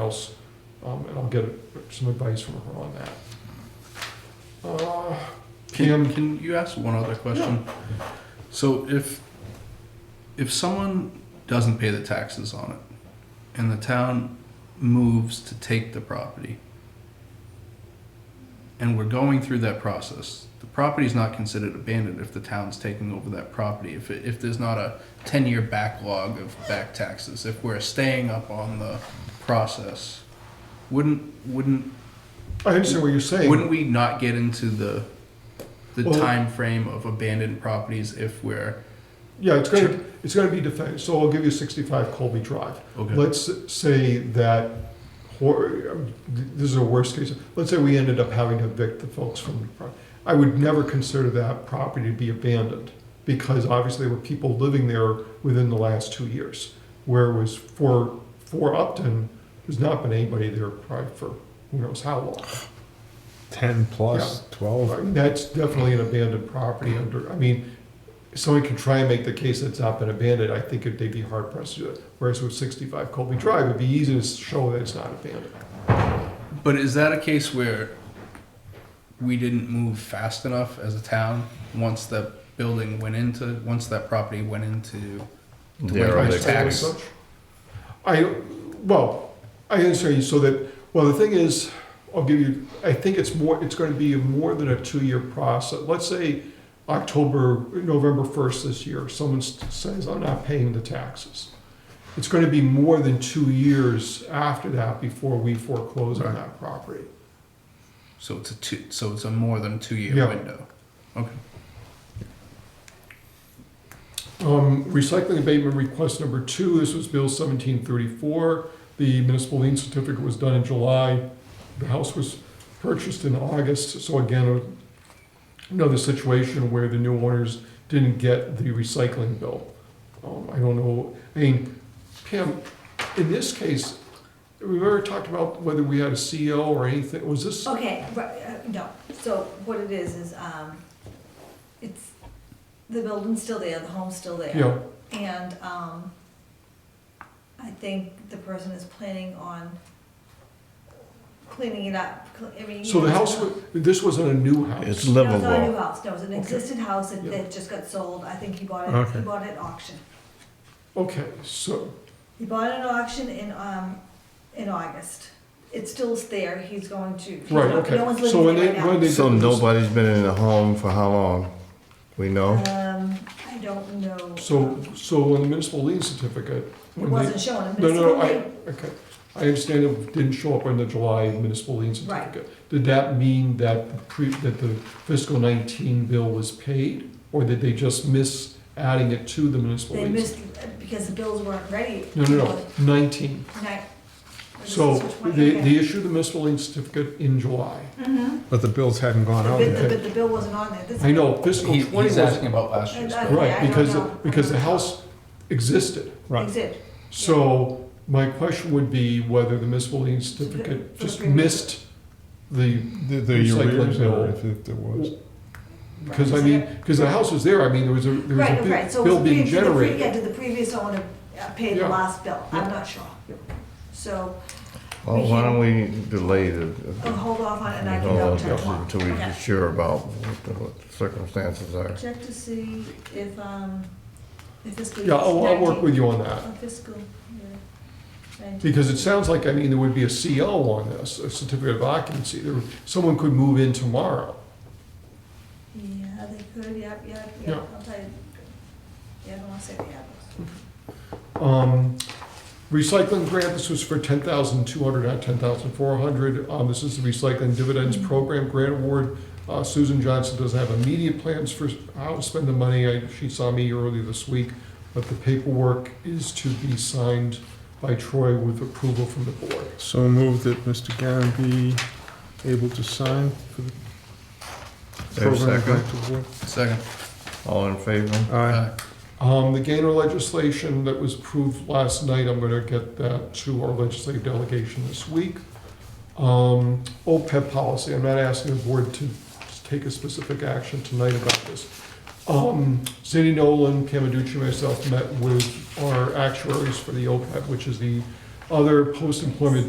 else, um, and I'll get some advice from her on that. Uh, Can, Kim. can you ask one other question? So if, if someone doesn't pay the taxes on it and the town moves to take the property and we're going through that process, the property's not considered abandoned if the town's taking over that property. If, it- if there's not a ten-year backlog of back taxes, if we're staying up on the process, wouldn't, wouldn't I understand what you're saying. Wouldn't we not get into the the Well- time frame of abandoned properties if we're Yeah, it's gonna, it's gonna be defended, so I'll give you sixty-five Colby Drive. okay? Let's say that, hor- um, th- this is a worst case, let's say we ended up having to evict the folks from the property. I would never consider that property to be abandoned, because obviously there were people living there within the last two years. Whereas for, for Upton, there's not been anybody there probably for who knows how long. 10 plus, I 12. mean, That's definitely an abandoned property under, I mean, someone can try and make the case that it's not been abandoned, I think they'd be hard pressed to do it. Whereas with sixty-five Colby Drive, it'd be easy to show that it's not abandoned. But is that a case where we didn't move fast enough as a town once the building went into once that property went into I Derelict. say as Tax. such. I, well, I understand you, so that, well, the thing is, I'll give you, I think it's more, it's gonna be more than a two-year process. Let's say October, November first this year, someone s- says, I'm not paying the taxes. It's gonna be more than two years after that before we foreclose on Right. that property. so it's a two so it's a more than two year Yeah. window. Okay. Um, recycling abatement request number two, this was Bill seventeen thirty-four. The municipal lien certificate was done in July. The house was purchased in August, so again, another situation where the new owners didn't get the recycling bill. Um, I don't know, I mean, Pam, in this case, we ever talked about whether we had a CO or anything, was this? Okay, right, uh, no, so what it is, is, um, it's, the building's still there, the home's still there. Yeah, And, um, I think the person is planning on cleaning it up, cl- I mean. so the house, wa- this wasn't a new house. It's No, it's not a new livable. house, no, it's an existing house that, Yeah. that just got sold, I think he bought it, he Okay. bought it at auction. Okay, so, He bought it at auction in, um, in August. It's still there, he's going to. he's right, not- okay. No one's So living when there they- right now. when they did So this- nobody's been in the home for how long? We know? Um, I don't know. Oh. So, so on the municipal lien certificate, It when they, wasn't shown, a no, municipal no, I, lien. okay, I understand it didn't show up on the July municipal lien Right. certificate. Did that mean that the pre, that the fiscal nineteen bill was paid, or did they just miss adding it to the municipal They lien? missed, because the bills weren't ready. No, no, no, nineteen. Night. So they, they issued the municipal lien certificate in July. The, But the bills hadn't gone out bid- Mm-hmm. the, yet. bid- the bill wasn't on there. This- Oh, I know fiscal He, twenty he's was, asking about last year's. I- I- bill. yeah, right, I don't because, know. because the house existed. Right. Exit. So my question would be whether the municipal lien certificate just missed the, The, the Recycling arrears bill. or if it- there was. because I mean, because the house was there, I mean, there was a, there was Right, a right, bi- so it was bill the pre- being to the pre, yeah, generated. to the previous owner uh, paid Yeah. the last bill, Yeah. I'm not sure. Yeah. So, Well, why don't we delay the, I'll hold off on it Oh, and I can go till tomorrow. until we're Okay. sure about what the what the circumstances are? Check to see if, um, if this. Yeah, I'll, I'll work with you on that, On fiscal, year 19. because it sounds like, I mean, there would be a CO on this, a certificate of occupancy, there, someone could move in tomorrow. Yeah, they could, yep, yep, Yeah. yep, I'll tell you. Yeah, I don't wanna say the address. Um, recycling grant, this was for ten thousand two hundred, not ten thousand four hundred. Um, this is the recycling dividends program grant award. Uh, Susan Johnson doesn't have immediate plans for how to spend the money. I, she saw me early this week, but the paperwork is to be signed by Troy with approval from the board. So moved that Mr. Garen be able to sign for the Dave, program second? back to work. Second. All in favor? Aye. Uh, Um, the Gainer legislation that was approved last night, I'm gonna get that to our legislative delegation this week. Um, OPEB policy, I'm not asking the board to take a specific action tonight about this. Um, Cindy Nolan, Camaducci, and myself met with our actuaries for the OPEB, which is the other post-employment